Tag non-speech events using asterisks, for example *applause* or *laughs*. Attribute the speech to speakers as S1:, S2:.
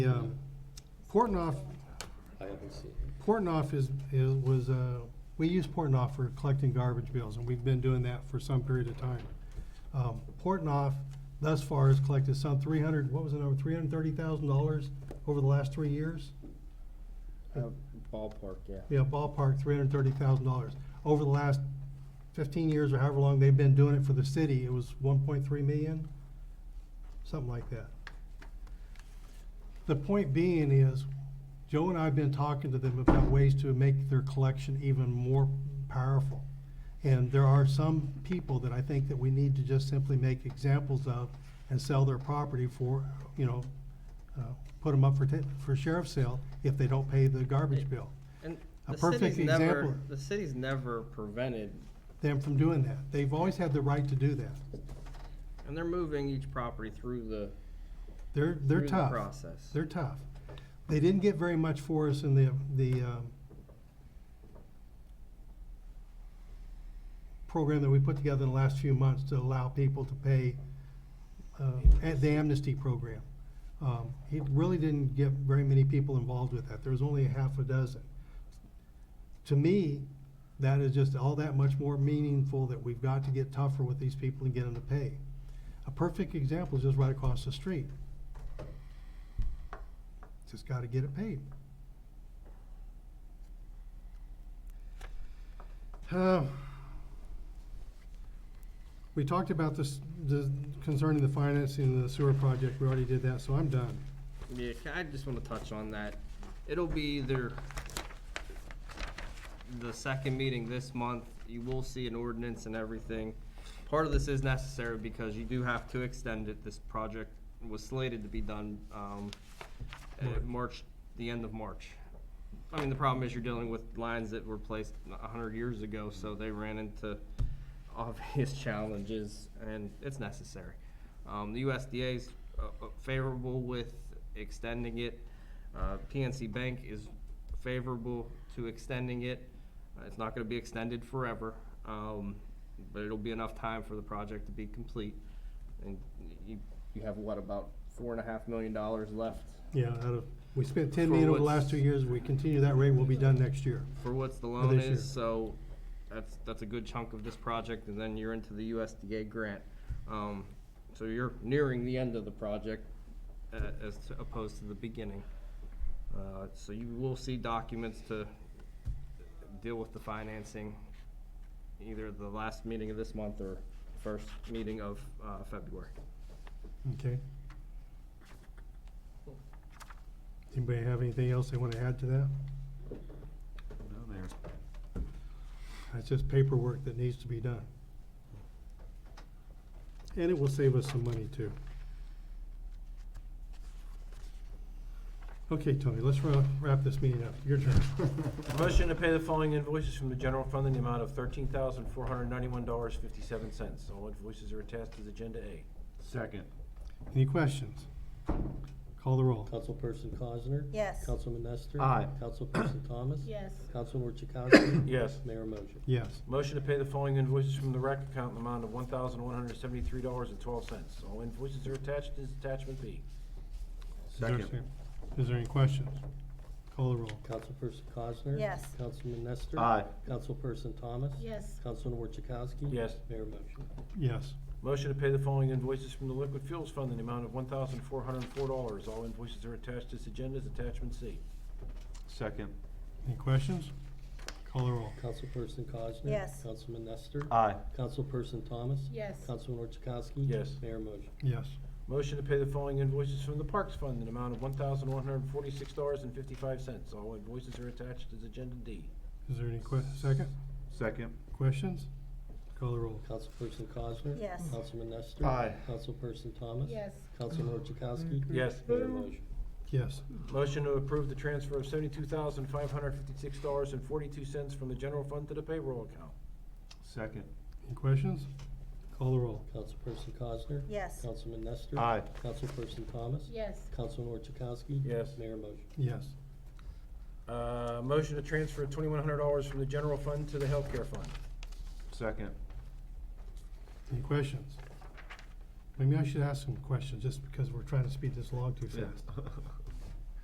S1: um, Portnoy,
S2: I haven't seen.
S1: Portnoy is, is, was, uh, we use Portnoy for collecting garbage bills, and we've been doing that for some period of time. Um, Portnoy thus far has collected some three hundred, what was the number, three hundred and thirty thousand dollars over the last three years?
S3: Uh, Ballpark, yeah.
S1: Yeah, ballpark, three hundred and thirty thousand dollars. Over the last fifteen years or however long they've been doing it for the city, it was one point three million, something like that. The point being is, Joe and I have been talking to them about ways to make their collection even more powerful. And there are some people that I think that we need to just simply make examples of and sell their property for, you know, uh, put them up for, ta- for sheriff's sale if they don't pay the garbage bill.
S2: And
S1: A
S2: the city's
S1: perfect
S2: never,
S1: example.
S2: the city's never prevented,
S1: them from doing that. They've always had the right to do that.
S2: and they're moving each property through the,
S1: They're,
S2: through
S1: they're
S2: the
S1: tough.
S2: process.
S1: They're tough. They didn't get very much for us in the, the, um, program that we put together in the last few months to allow people to pay, uh, at the amnesty program. Um, he really didn't get very many people involved with that. There was only a half a dozen. To me, that is just all that much more meaningful that we've got to get tougher with these people and get them to pay. A perfect example is just right across the street. Just gotta get it paid. Uh, We talked about this, the, concerning the financing of the sewer project, we already did that, so I'm done.
S2: Yeah, ca- I just wanna touch on that. It'll be either the second meeting this month, you will see an ordinance and everything. Part of this is necessary because you do have to extend it. This project was slated to be done, um, at March, the end of March. I mean, the problem is you're dealing with lines that were placed a hundred years ago, so they ran into *laughs* obvious challenges, and it's necessary. Um, the USDA's uh, uh, favorable with extending it. Uh, PNC Bank is favorable to extending it. Uh, It's not gonna be extended forever, um, but it'll be enough time for the project to be complete. And you, you have what, about four and a half million dollars left
S1: Yeah, out of, we spent ten
S2: For
S1: million over the
S2: what's-
S1: last two years, we continue that rate, we'll be done next year.
S2: for what's the loan
S1: this year.
S2: is, so that's, that's a good chunk of this project, and then you're into the USDA grant. Um, so you're nearing the end of the project, uh, as to- opposed to the beginning. Uh, so you will see documents to deal with the financing, either the last meeting of this month or first meeting of, uh, February.
S1: Okay. Anybody have anything else they wanna add to that?
S4: No, there's,
S1: That's just paperwork that needs to be done. And it will save us some money too. Okay, Tony, let's wra- wrap this meeting up. Your turn.
S5: Motion to pay the following invoices from the general fund in the amount of thirteen thousand four hundred ninety-one dollars fifty-seven cents. All invoices are attached as agenda A.
S4: second,
S1: Any questions? Call the
S6: Uh,
S1: roll.
S6: Councilperson Cosner?
S7: Yes.
S6: Councilman Nestor?
S4: Aye. *clears throat*
S6: Councilperson Thomas?
S7: Yes.
S6: Councilor Chakowski?
S5: Yes.
S6: Mayor Mosher?
S1: Yes.
S5: Motion to pay the following invoices from the rec account in the amount of one thousand one hundred seventy-three dollars and twelve cents. All invoices are attached as attachment B.
S1: Is there-
S4: Second.
S1: Is there any questions? Call the roll.
S6: Councilperson Cosner?
S7: Yes.
S6: Councilman Nestor?
S4: Aye.
S6: Councilperson Thomas?
S7: Yes.
S6: Councilor Chakowski?
S5: Yes.
S6: Mayor Mosher?
S1: Yes.
S5: Motion to pay the following invoices from the liquid fuels fund in the amount of one thousand four hundred four dollars. All invoices are attached as agenda as attachment C.
S4: second,
S1: Any questions? Call the roll.
S6: Councilperson Cosner?
S7: Yes.
S6: Councilman Nestor?
S4: aye,
S6: Councilperson Thomas?
S7: Yes.
S6: Councilor Chakowski?
S5: Yes.
S6: Mayor Mosher?
S1: Yes.
S5: Motion to pay the following invoices from the Parks Fund in the amount of one thousand one hundred forty-six dollars and fifty-five cents. All invoices are attached as Agenda D.
S1: Is there any que- second?
S4: second,
S1: Questions? Call the roll.
S6: Councilperson Cosner?
S7: Yes.
S6: Councilman Nestor?
S4: Aye.
S6: Councilperson Thomas?
S7: Yes.
S6: Councilor Chakowski?
S5: Yes.
S6: Mayor Mosher?
S1: Yes.
S5: Motion to approve the transfer of seventy-two thousand five hundred fifty-six dollars and forty-two cents from the general fund to the payroll account.
S4: second,
S1: Any questions? Call the roll.
S6: Councilperson Cosner?
S7: Yes.
S6: Councilman Nestor?
S4: Aye.
S6: Councilperson Thomas?
S7: Yes.
S6: Councilor Chakowski?
S5: Yes.
S6: Mayor Mosher?
S1: Yes.
S5: Uh, motion to transfer twenty-one hundred dollars from the general fund to the healthcare fund.
S4: second.
S1: Any questions? Maybe I should ask some questions, just because we're trying to speed this along too fast.